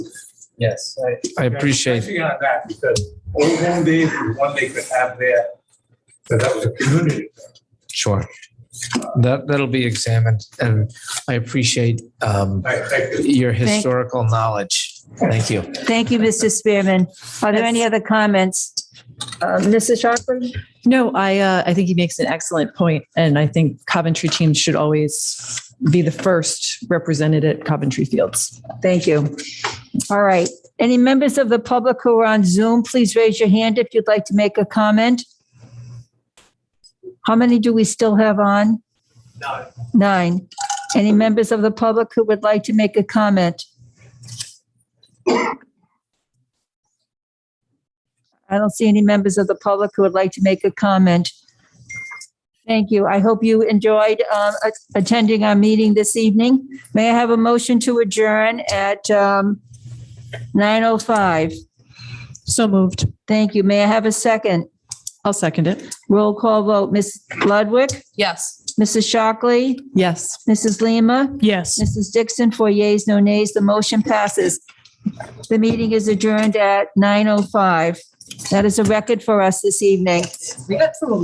Yes, I- I appreciate, Touching on that, because old home days, was one they could have there, so that was a community. sure. That, that'll be examined and I appreciate um, I, I could your historical knowledge. Thank you. Thank you, Mr. Spearman. Are there any other comments? Uh, Mrs. Shockley? No, I uh, I think he makes an excellent point, and I think Coventry teams should always be the first represented at Coventry Fields. Thank you. All right. Any members of the public who are on Zoom, please raise your hand if you'd like to make a comment. How many do we still have on? Nine. Nine. Any members of the public who would like to make a comment? I don't see any members of the public who would like to make a comment. Thank you. I hope you enjoyed um, a- attending our meeting this evening. May I have a motion to adjourn at um, 9:05? So moved. Thank you. May I have a second? I'll second it. Roll call vote. Ms. Ludwig, Yes. Mrs. Shockley, Yes. Mrs. Lima, Yes. Mrs. Dixon, four yeas, no nays. The motion passes. The meeting is oh adjourned at 9:05. That is a record for us this evening.